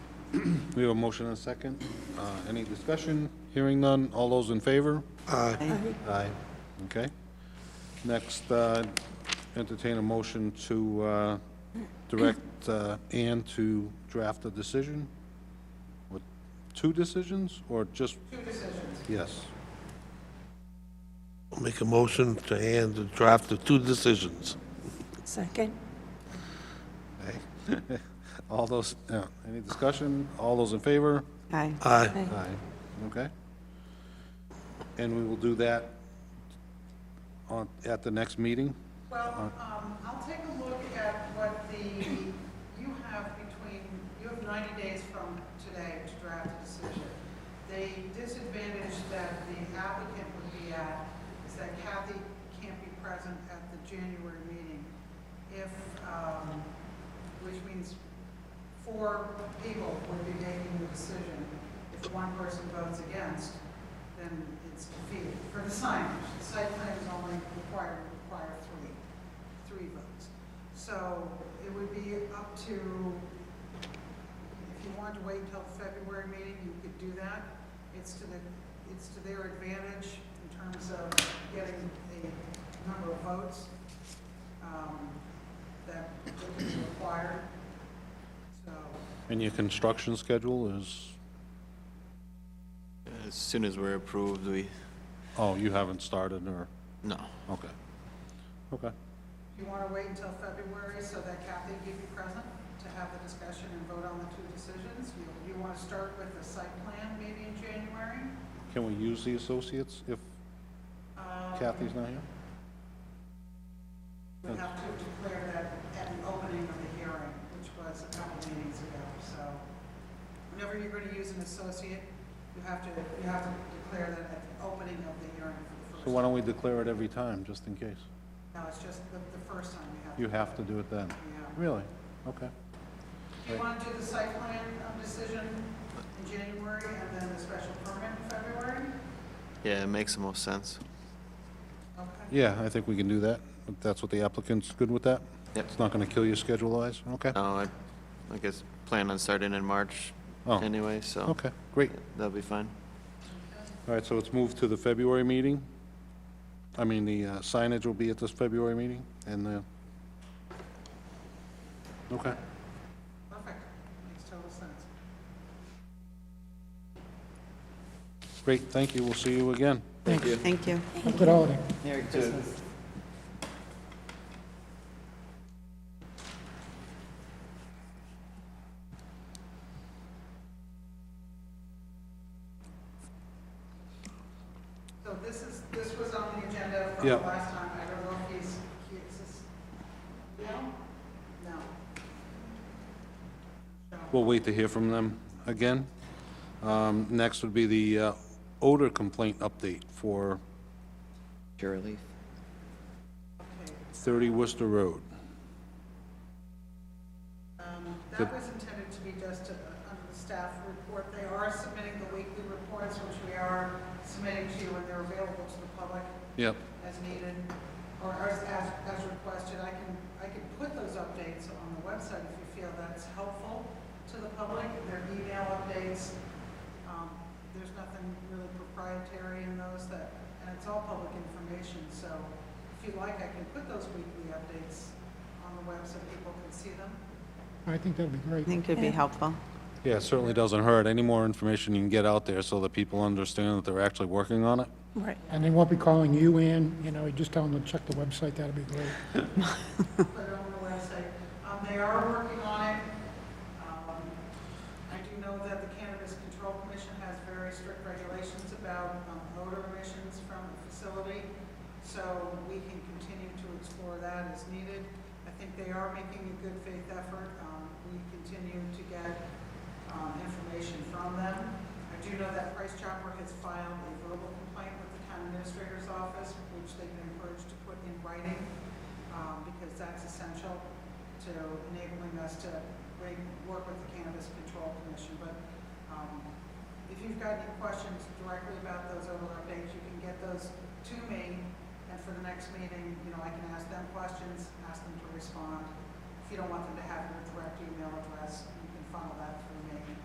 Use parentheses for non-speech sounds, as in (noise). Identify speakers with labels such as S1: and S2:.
S1: We have a motion and a second. Uh, Any discussion? Hearing none. All those in favor?
S2: Aye.
S1: Aye. Okay. Next, uh, entertain a motion to uh, direct uh, Ann to draft a decision? With two decisions, or just? Two decisions. Yes. (laughs)
S3: Make a motion to hand the draft of two decisions.
S2: Second.
S1: Okay. All those, yeah, any discussion? All those in favor?
S2: Aye.
S3: Aye.
S1: Aye. Okay. And we will do that on, at the next meeting?
S4: Well, um, I'll take a look at what the, you have between, you have 90 days from today to draft a decision. The disadvantage that the applicant would be at is that Kathy can't be present at the January meeting. If, um, which means four people would be making the decision. If one person votes against, then it's defeated. For the signage, the site plan is only required, require three, three votes. So it would be up to, if you wanted to wait until the February meeting, you could do that. It's to the, it's to their advantage in terms of getting a number of votes um, that would be required. So
S1: And your construction schedule is,
S5: As soon as we're approved, we,
S1: oh, you haven't started, or,
S5: no.
S1: okay. Okay.
S4: You want to wait until February so that Kathy can be present to have the discussion and vote on the two decisions? You, you want to start with the site plan maybe in January?
S1: Can we use the associates if
S4: Um,
S1: Kathy's not here?
S4: We have to declare that at the opening of the hearing, which was a couple meetings ago, so whenever you're going to use an associate, you have to, you have to declare that at the opening of the hearing for
S1: So
S4: the
S1: why
S4: first.
S1: don't we declare it every time, just in case?
S4: No, it's just the, the first time you have.
S1: You have to do it then.
S4: Yeah.
S1: Really? Okay.
S4: Do you want to do the site plan um, decision in January and then the special permit in February?
S5: Yeah, it makes the most sense.
S4: Okay.
S1: Yeah, I think we can do that. If That's what the applicant's good with that?
S5: Yep.
S1: It's not gonna kill your schedule-wise? Okay.
S5: No, I, I guess plan on starting in March
S1: Oh,
S5: anyway, so.
S1: okay, great.
S5: That'll be fine.
S1: All right, so it's moved to the February meeting? I mean, the uh, signage will be at this February meeting, and the... Okay.
S4: Perfect. Makes total sense.
S1: Great, thank you, we'll see you again.
S2: Thank you. Thank you.
S4: So this is, this was on the agenda from
S1: Yeah.
S4: last time. I don't know if he's, he is this- no? No.
S1: We'll wait to hear from them again. Um, Next would be the uh, odor complaint update for
S6: Sure relief.
S1: 30 Worcester Road.
S4: Um,
S1: The-
S4: That was intended to be just a- under the staff report. They are submitting the weekly reports, which we are submitting to you, and they're available to the public
S1: Yep.
S4: as needed, or as, as as requested. I can, I can put those updates on the website if you feel that's helpful to the public. They're email updates. Um, There's nothing really proprietary in those that, and it's all public information, so if you like, I can put those weekly updates on the web so people can see them.
S7: I think that'd be
S2: I
S7: great.
S2: think it'd be helpful.
S1: Yeah, it certainly doesn't hurt. Any more information you can get out there so that people understand that they're actually working on it?
S2: Right.
S7: And they won't be calling you in, you know, you just tell them to check the website, that'd be great.
S4: put it on the website. Um, They are working on it. Um, I do know that the Cannabis Control Commission has very strict regulations about um, odor emissions from the facility, so we can continue to explore that as needed. I think they are making a good faith effort. Um, We continue to get um, information from them. I do know that Price Chopper has filed a verbal complaint with the town administrator's office, which they've been encouraged to put in writing um, because that's essential to enabling us to re- work with the Cannabis Control Commission. But um, if you've got any questions directly about those other updates, you can get those to me, and for the next meeting, you know, I can ask them questions, ask them to respond. If you don't want them to have your direct email address, you can funnel that through me,